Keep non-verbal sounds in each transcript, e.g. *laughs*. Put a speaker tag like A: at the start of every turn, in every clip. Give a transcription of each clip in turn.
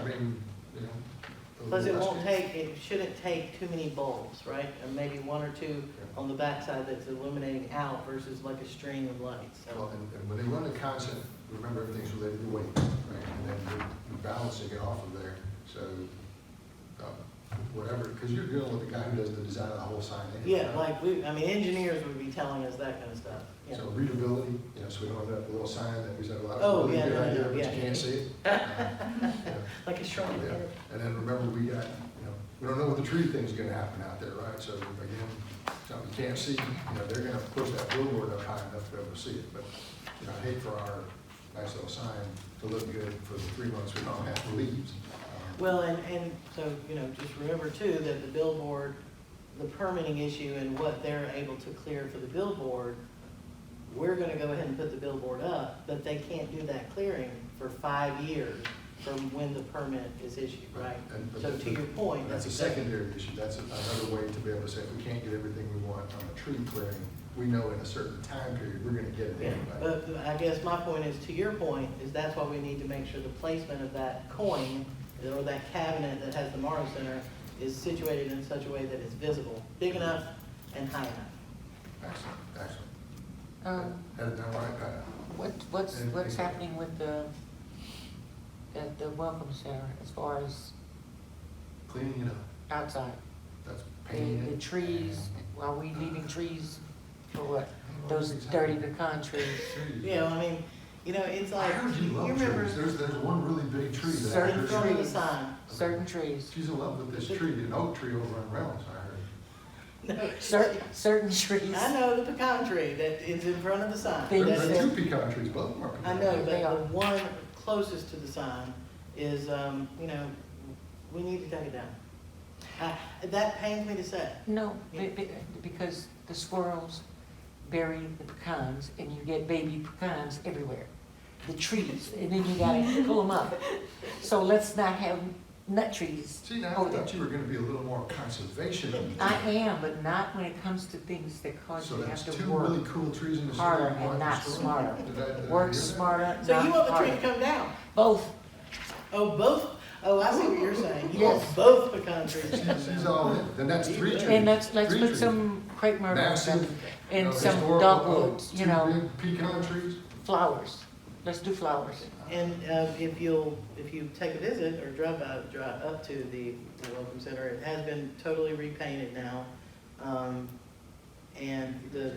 A: I mean, you know. the
B: Plus it
A: last
B: won't
A: bit.
B: take, it shouldn't take too many bulbs, right? And maybe one or two on the backside that's illuminating out versus like a string of lights.
A: Well,
B: So
A: and, and when they run the concept, remember everything's related to weight, right? And then you're- you're balancing it off of there, so, uh, whatever, because you're dealing with the guy who does the design of the whole sign. anyway,
B: Yeah,
A: right?
B: like we, I mean, engineers would be telling us that kind of stuff, yeah.
A: So readability, you know, so we don't end up with a little sign that we said, well,
B: Oh,
A: that's a
B: yeah,
A: really good
B: no,
A: idea,
B: no,
A: but
B: yeah.
A: you can't see
B: *laughs*
A: it. Uh, yeah.
B: Like a shrine.
A: Yeah, and then remember, we got, you know, we don't know what the tree thing's gonna happen out there, right? So again, something you can't see, you know, they're gonna push that billboard up high enough to be able to see it, but, you know, I hate for our nice little sign to look good for the three months we don't have the leaves. Um,
B: Well, and, and so, you know, just remember too, that the billboard, the permitting issue and what they're able to clear for the billboard, we're gonna go ahead and put the billboard up, but they can't do that clearing for five years from when the permit is issued, right?
A: and- but
B: So
A: that-
B: to your point,
A: That's a secondary issue, that's another way to be able to say, if we can't get everything we want on a tree clearing, we know in a certain time period, we're gonna get it
B: Yeah, Uh,
A: anyway.
B: But I guess my point is, to your point, is that's why we need to make sure the placement of that coin or that cabinet that has the Morrow Center is situated in such a way that it's visible, big enough and high enough.
A: Excellent, excellent.
C: Um,
A: Had it done right, Pat.
C: what, what's,
A: And-
C: what's happening with the, the, the welcome center as far as
A: cleaning it up,
C: outside?
A: that's
C: The,
A: painting it.
C: the trees, are we leaving trees for what? Those dirty pecan trees?
B: You know, I mean, you know, it's
A: I
B: like,
A: heard you
B: you
A: love
B: remember
A: trees, there's, there's one really big tree that I
B: in
C: Certain
B: front
A: heard,
B: of the
C: trees.
B: sign.
C: Certain trees,
A: she's in love with this tree, an oak tree over in Reynolds, I heard.
B: No,
C: certain, certain trees.
B: I know the pecan tree that is in front of the sign.
C: They-
A: There
B: That's
A: there
B: it.
A: are two pecan trees, both of them are
B: I
A: pecan.
B: know, but
C: They are.
B: the one closest to the sign is, um, you know, we need to take it down. I- That pains me to say.
C: No, be- be- because the squirrels bury the pecans and you get baby pecans everywhere. The trees, and then you gotta pull them up. So let's not have nut trees.
A: See, now, I
C: over
A: thought
C: there.
A: you were gonna be a little more conservation.
C: I am, but not when it comes to things that cause
A: So
C: you to
A: that's
C: have
A: two
C: to work.
A: really cool trees in the store.
C: harder
A: and
C: and
A: one in the
C: not
A: store. Did
C: smarter.
A: I- did I hear
C: Work
A: that?
C: smarter,
B: So you
C: not
B: want the tree to
C: harder.
B: come down?
C: Both,
B: Oh, both, oh, I see what you're saying. You want
C: Yes.
B: both pecan trees to
A: She's
B: come
A: she's
B: down.
A: all in, then that's three trees.
C: and let's, let's
A: Three
C: put
A: trees.
C: some crepe myrtle
A: Massive, you know,
C: and some
A: historical
C: dogwoods,
A: oak,
C: you know,
A: Two big pecan trees.
C: flowers. Let's do flowers.
B: And uh, if you'll, if you take a visit or drive by, drive up to the the Welcome Center, it has been totally repainted now. Um, And the,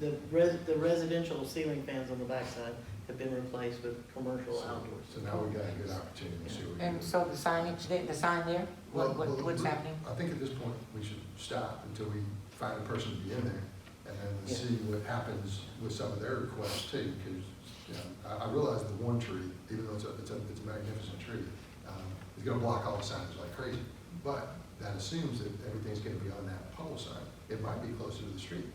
B: the res- the residential ceiling fans on the backside have been replaced with commercial outdoors.
A: So now we got a good opportunity to see what we can
C: And
A: do.
C: so the signage, there- the sign there,
A: Well,
C: what, what,
A: well,
C: what's
A: we-
C: happening?
A: I think at this point, we should stop until we find a person to be in there, and then we'll
B: Yeah.
A: see what happens with some of their requests too, because, you know, I, I realize the one tree, even though it's a, it's a, it's a magnificent tree, um, is gonna block all the signs like crazy, but that assumes that everything's gonna be on that pole sign, it might be closer to the street,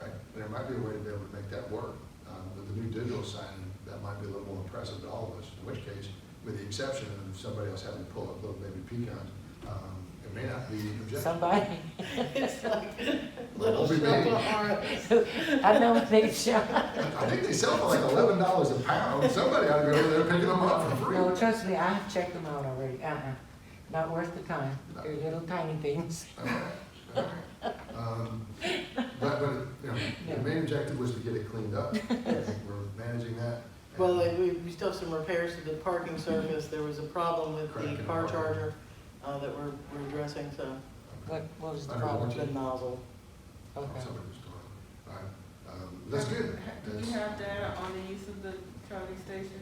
A: right? And there might be a way to be able to make that work, um, with the new digital sign, that might be a little more impressive to all of us, in which case, with the exception of somebody else having to pull up little baby pecans, um, it may not be objective.
C: Somebody,
B: *laughs*
C: *laughs*
B: It's like
A: *laughs*
B: little
A: Well, we made it.
B: shop
C: I know
A: *laughs*
C: they shall.
A: I think they sell for like eleven dollars a pound, somebody ought to go over there picking them up for free.
C: No, trust me, I have checked them out already, uh-uh, not worth the time,
A: No.
C: they're little tiny things. *laughs*
A: Um, But, but, you know, the main objective was to get it cleaned up, I think we're managing that.
B: Well, uh, we, we still have some repairs to the parking surface. There was a problem with
A: Correct,
B: the
A: and
B: car
A: parking.
B: charger uh, that we're, we're addressing, so
A: um,
C: What, what was the
A: Under
C: problem?
A: warranty.
B: the nozzle.
C: Okay.
A: Somebody was talking. All right, um, That's good.
D: Do
A: That's-
D: you have data on the use of the charging station?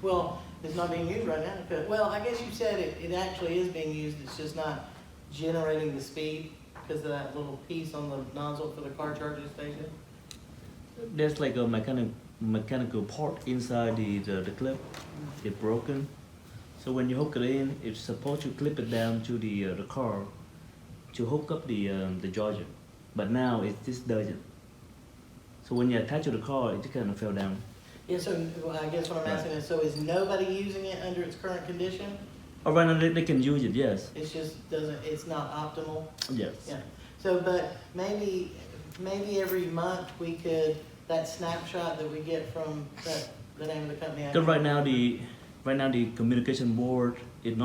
B: Well, it's not being used right now, because, well, I guess you said it, it actually is being used, it's just not generating the speed because of that little piece on the nozzle for the car charging station.
E: There's like a mechanic, mechanical part inside the, the, the clip. It's broken. So when you hook it in, it's supposed to clip it down to the uh, the car to hook up the um, the charger. But now it just doesn't. So when you attach to the car, it just kind of fell down.
B: Yeah, so well, I guess what I'm asking is, so is nobody using it under its current condition?
E: Or Oh, right now they, they can use it. Yes.
B: It's just doesn't, it's not optimal?
E: Yes.
B: Yeah, so, but maybe, maybe every month we could, that snapshot that we get from that, the name of the company. I
E: Because right now the right now the communication board